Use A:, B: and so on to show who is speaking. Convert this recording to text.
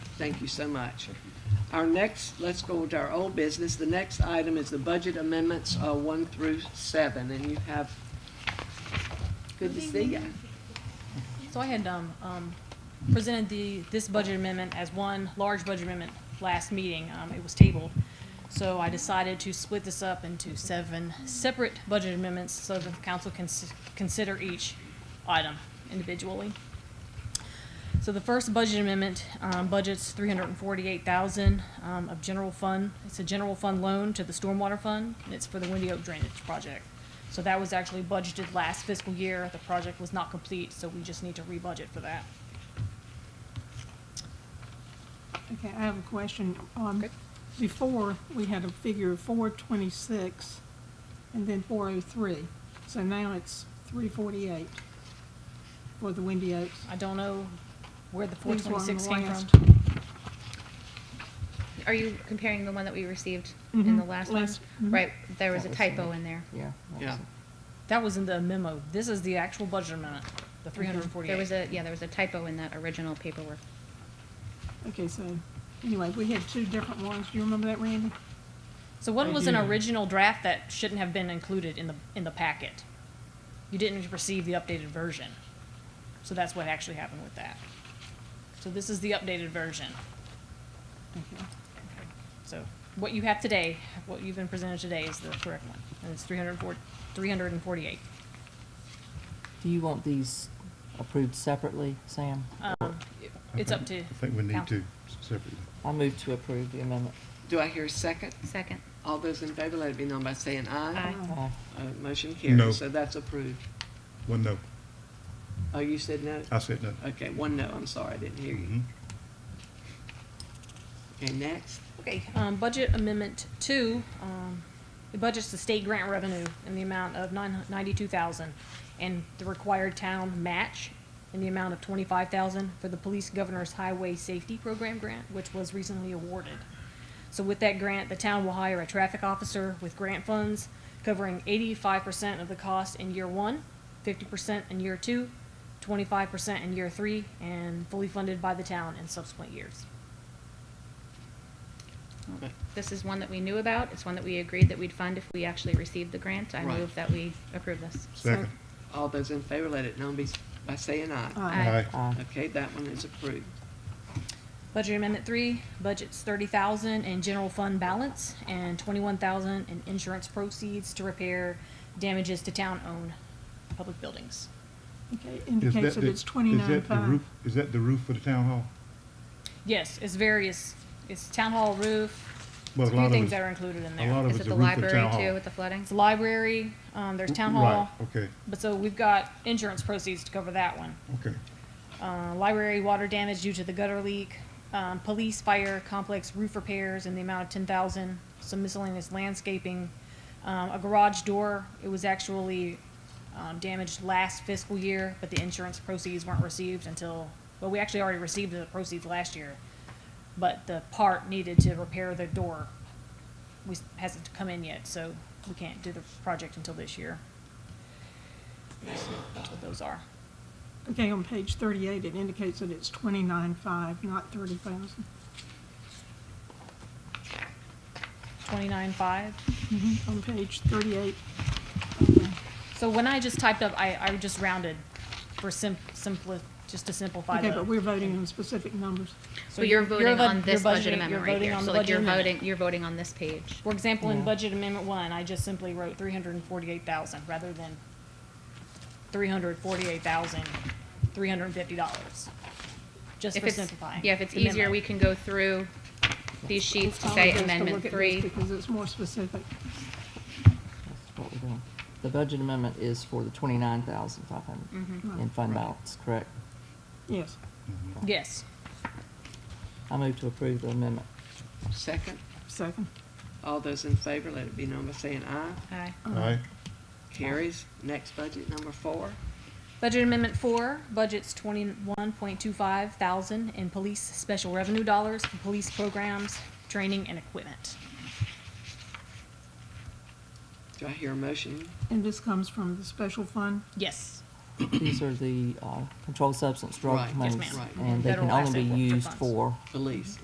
A: Thank you so much. Our next, let's go to our old business. The next item is the budget amendments, uh, one through seven, and you have, good to see you.
B: So I had um, um, presented the, this budget amendment as one large budget amendment last meeting. Um, It was tabled. So I decided to split this up into seven separate budget amendments so that the council can s- consider each item individually. So the first budget amendment um, budgets three hundred and forty-eight thousand um, of general fund. It's a general fund loan to the stormwater fund, and it's for the Windy Oak Drainage Project. So that was actually budgeted last fiscal year. The project was not complete, so we just need to rebudget for that.
C: Okay, I have a question. Um,
B: Okay.
C: before, we had a figure of four twenty-six and then four oh three. So now it's three forty-eight for the Windy Oaks.
B: I don't know where the four
C: These were on the
B: twenty-six came
C: last-
B: from.
D: Are you comparing the one that we received in the
C: Mhm,
D: last one?
C: last- mhm.
D: Right, there was a
E: That was the
D: typo
E: one.
D: in there.
E: Yeah.
A: Yeah.
B: That was in the memo. This is the actual budget amendment, the three hundred and forty-eight.
D: There was a, yeah, there was a typo in that original paperwork.
C: Okay, so, anyway, we had two different ones. Do you remember that, Randy?
B: So what
C: I
B: was an
C: do.
B: original draft that shouldn't have been included in the, in the packet? You didn't receive the updated version. So that's what actually happened with that. So this is the updated version.
C: Okay.
B: So what you have today, what you've been presented today is the correct one, and it's three hundred and four, three hundred and forty-eight.
E: Do you want these approved separately, Sam?
B: Um, it- it's up to.
F: I think we need
B: council.
F: to separately.
E: I move to approve the amendment.
A: Do I hear a second?
D: Second.
A: All those in favor, let it be known by saying aye.
D: Aye.
E: Uh,
A: Uh, motion carries,
F: No.
A: so that's approved.
F: Well, no,
A: Oh, you said no?
F: I said no.
A: Okay, one no, I'm sorry, I didn't hear you.
F: Mhm.
A: Okay, next,
B: Okay, um, budget amendment two, um, it budgets the state grant revenue in the amount of nine, ninety-two thousand and the required town match in the amount of twenty-five thousand for the police governor's highway safety program grant, which was recently awarded. So with that grant, the town will hire a traffic officer with grant funds covering eighty-five percent of the cost in year one, fifty percent in year two, twenty-five percent in year three, and fully funded by the town in subsequent years.
A: Right.
D: This is one that we knew about. It's one that we agreed that we'd fund if we actually received the grant. I
A: Right.
D: move that we approve this.
F: Second.
A: all those in favor, let it known be, by saying aye.
C: Aye.
D: Aye.
E: uh,
A: Okay, that one is approved.
B: Budget Amendment Three, budget's thirty thousand in general fund balance and twenty-one thousand in insurance proceeds to repair damages to town-owned public buildings.
C: Okay,
F: Is
C: indicates
F: that
C: that
F: the-
C: it's
F: is that
C: twenty-nine
F: the
C: five.
F: roof- Is that the roof for the town hall?
B: Yes, it's various, it's town hall roof,
F: Well,
B: it's a
F: a
B: few
F: lot of
B: things
F: it's-
B: that are included in
F: a lot
B: there.
F: of-
D: Is
F: it's
D: it the
F: roof of the
D: library
F: town hall.
D: too with the flooding?
B: It's the library, um, there's town
F: Right,
B: hall,
F: Okay,
B: but so we've got insurance proceeds to cover that one.
F: okay.
B: uh, library water damage due to the gutter leak, um, police fire complex roof repairs in the amount of ten thousand, some miscellaneous landscaping, um, a garage door, it was actually, um, damaged last fiscal year, but the insurance proceeds weren't received until, well, we actually already received the proceeds last year, but the part needed to repair the door, we, hasn't come in yet, so we can't do the project until this year. That's what those are.
C: Okay, on page thirty-eight, it indicates that it's twenty-nine five, not thirty thousand.
B: Twenty-nine five. Mm-hmm.
C: On page thirty-eight.
B: So when I just typed up, I, I just rounded for sim, simpli, just to simplify the.
C: Okay, but we're voting on specific numbers.
B: So
D: Well, you're
B: you're
D: voting
B: vo-
D: on this
B: you're
D: budget
B: budgeting-
D: amendment
B: you're
D: right
B: voting
D: here.
B: on
D: So
B: the
D: like
B: budget
D: you're
B: amendment.
D: voting, you're voting on this page.
B: For example, in
E: Yeah.
B: budget amendment one, I just simply wrote three hundred and forty-eight thousand rather than three hundred forty-eight thousand, three hundred and fifty dollars. Just
D: If
B: for
D: it's-
B: simplifying.
D: Yeah, if it's
B: the memo.
D: easier, we can go through these sheets to
C: It's
D: say
C: always best to
D: amendment
C: look at this
D: three.
C: Because it's more specific.
E: that's what we're doing. The budget amendment is for the twenty-nine thousand five hundred
D: Mm-hmm.
E: in fund
F: Right.
E: balance, correct?
C: Yes.
F: Mm-hmm.
C: Uh-huh.
B: Yes.
E: I move to approve the amendment.
A: Second,
C: Second.
A: all those in favor, let it be known by saying aye.
D: Aye.
F: Aye,
A: Carries, next budget number four.
B: Budget Amendment Four, budget's twenty-one point two five thousand in police special revenue dollars for police programs, training and equipment.
A: Do I hear a motion?
C: And this comes from the special fund?
B: Yes.
E: these are the uh, controlled substance drug
A: Right. Yes,
E: monies.
B: ma'am.
E: And they can
B: Federal
E: only be
B: asset forfeiture
E: used
B: funds.
E: for
A: Elise.